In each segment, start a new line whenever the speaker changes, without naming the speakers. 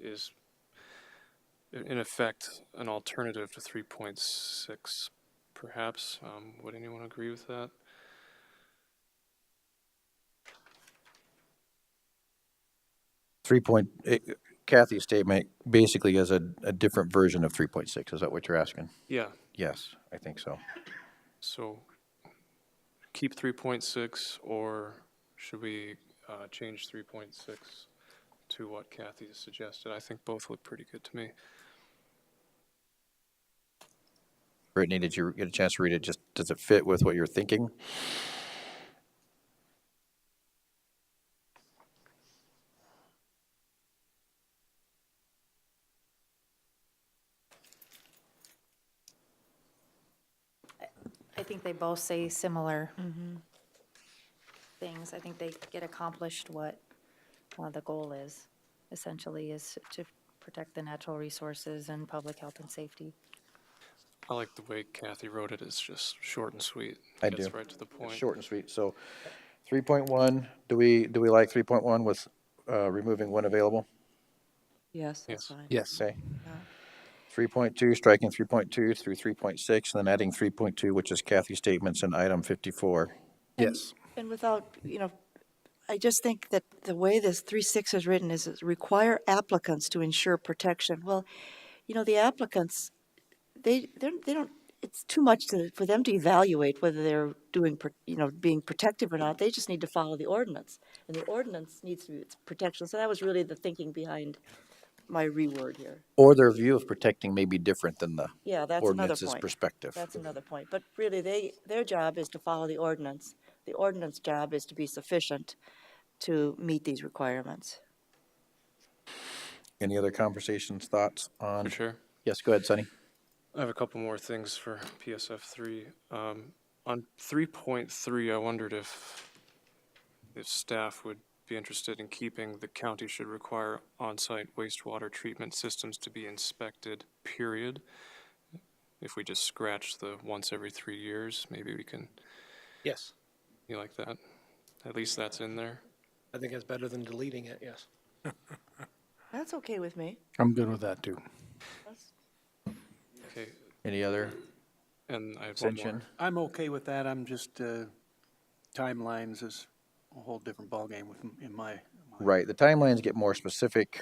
is in effect an alternative to three point six, perhaps. Um, would anyone agree with that?
Three point, it- eh, Kathy's statement basically is a, a different version of three point six, is that what you're asking?
Yeah,
Yes, I think so.
so keep three point six, or should we, uh, change three point six to what Kathy suggested? I think both look pretty good to me.
Brittany, did you get a chance to read it? Just, does it fit with what you're thinking?
I think they both say similar things. I think they get accomplished what, well, the goal is, essentially, is to protect the natural resources and public health and safety.
I like the way Kathy wrote it. It's just short and sweet.
I
Gets
do.
right to the
It's
point.
Short and sweet, so three point one, do we, do we like three point one with, uh, removing one available?
Yes,
Yes.
that's fine.
Yes. Okay. Three point two, striking three point two through three point six, and then adding three point two, which is Kathy's statements in item fifty-four. Yes.
And without, you know, I just think that the way this three six is written is it's require applicants to ensure protection. Well, you know, the applicants, they, they're, they don't, it's too much to, for them to evaluate whether they're doing, pro- you know, being protective or not. They just need to follow the ordinance. And the ordinance needs to be, it's protection. So that was really the thinking behind my reword here.
Or their view of protecting may be different than the
Yeah, that's another
ordinance's
point.
perspective.
That's another point. But really, they, their job is to follow the ordinance. The ordinance job is to be sufficient to meet these requirements.
Any other conversations, thoughts
For
on?
sure.
Yes, go ahead, Sonny.
I have a couple more things for PSF three. Um, on three point three, I wondered if, if staff would be interested in keeping the county should require on-site wastewater treatment systems to be inspected, period. If we just scratch the once every three years, maybe we can,
Yes,
you like that? At least that's in there.
I think that's better than deleting it, yes.
That's okay with me.
I'm good with that too.
Okay,
Any other
and I have one more.
extension?
I'm okay with that, I'm just, uh, timelines is a whole different ballgame with, in my,
Right, the timelines get more specific.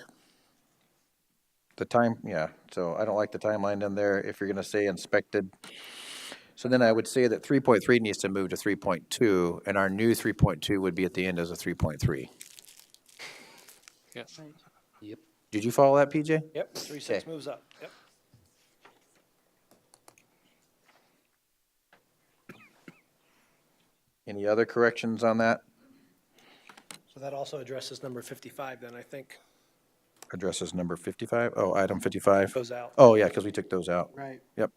The time, yeah, so I don't like the timeline in there if you're gonna say inspected. So then I would say that three point three needs to move to three point two, and our new three point two would be at the end as a three point three.
Yes,
Did you follow that, PJ?
Yep, three six moves up, yep.
Any other corrections on that?
So that also addresses number fifty-five then, I think,
Addresses number fifty-five? Oh, item fifty-five.
goes out.
Oh, yeah, because we took those out.
right,
Yep.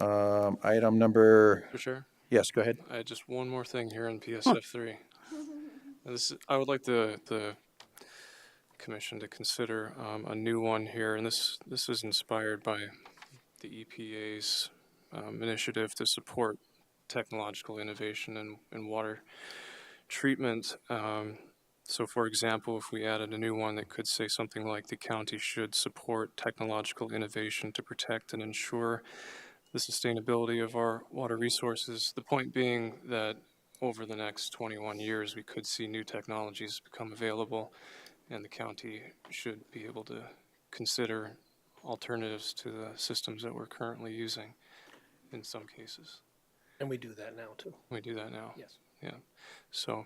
Um, item number,
for sure.
yes, go ahead.
I had just one more thing here on PSF three. And This, I would like the, the commission to consider, um, a new one here, and this, this is inspired by the EPA's, um, initiative to support technological innovation in, in water treatment. Um, so for example, if we added a new one that could say something like the county should support technological innovation to protect and ensure the sustainability of our water resources. The point being that over the next 21 years, we could see new technologies become available, and the county should be able to consider alternatives to the systems that we're currently using in some cases.
And we do that now too.
We do that now.
Yes.
Yeah. So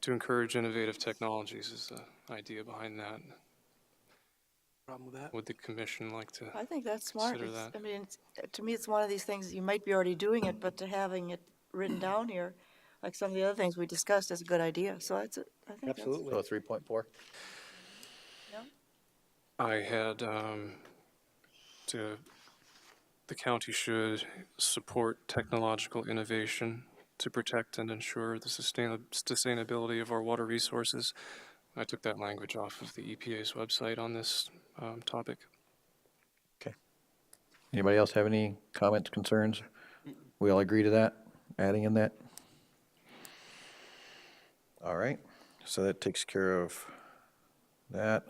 to encourage innovative technologies is the idea behind that.
problem with that?
Would the commission like to?
I think that's smart.
Consider
It's-
that.
I mean, it's- to me, it's one of these things, you might be already doing it, but to having it written down here, like some of the other things we discussed, is a good idea. So that's, a- I think that's.
So three point four?
I had um, to, the county should support technological innovation to protect and ensure the sustain- sustainability of our water resources. I took that language off of the EPA's website on this um, topic.
Anybody else have any comments, concerns? We all agree to that, adding in that? All right, so that takes care of that.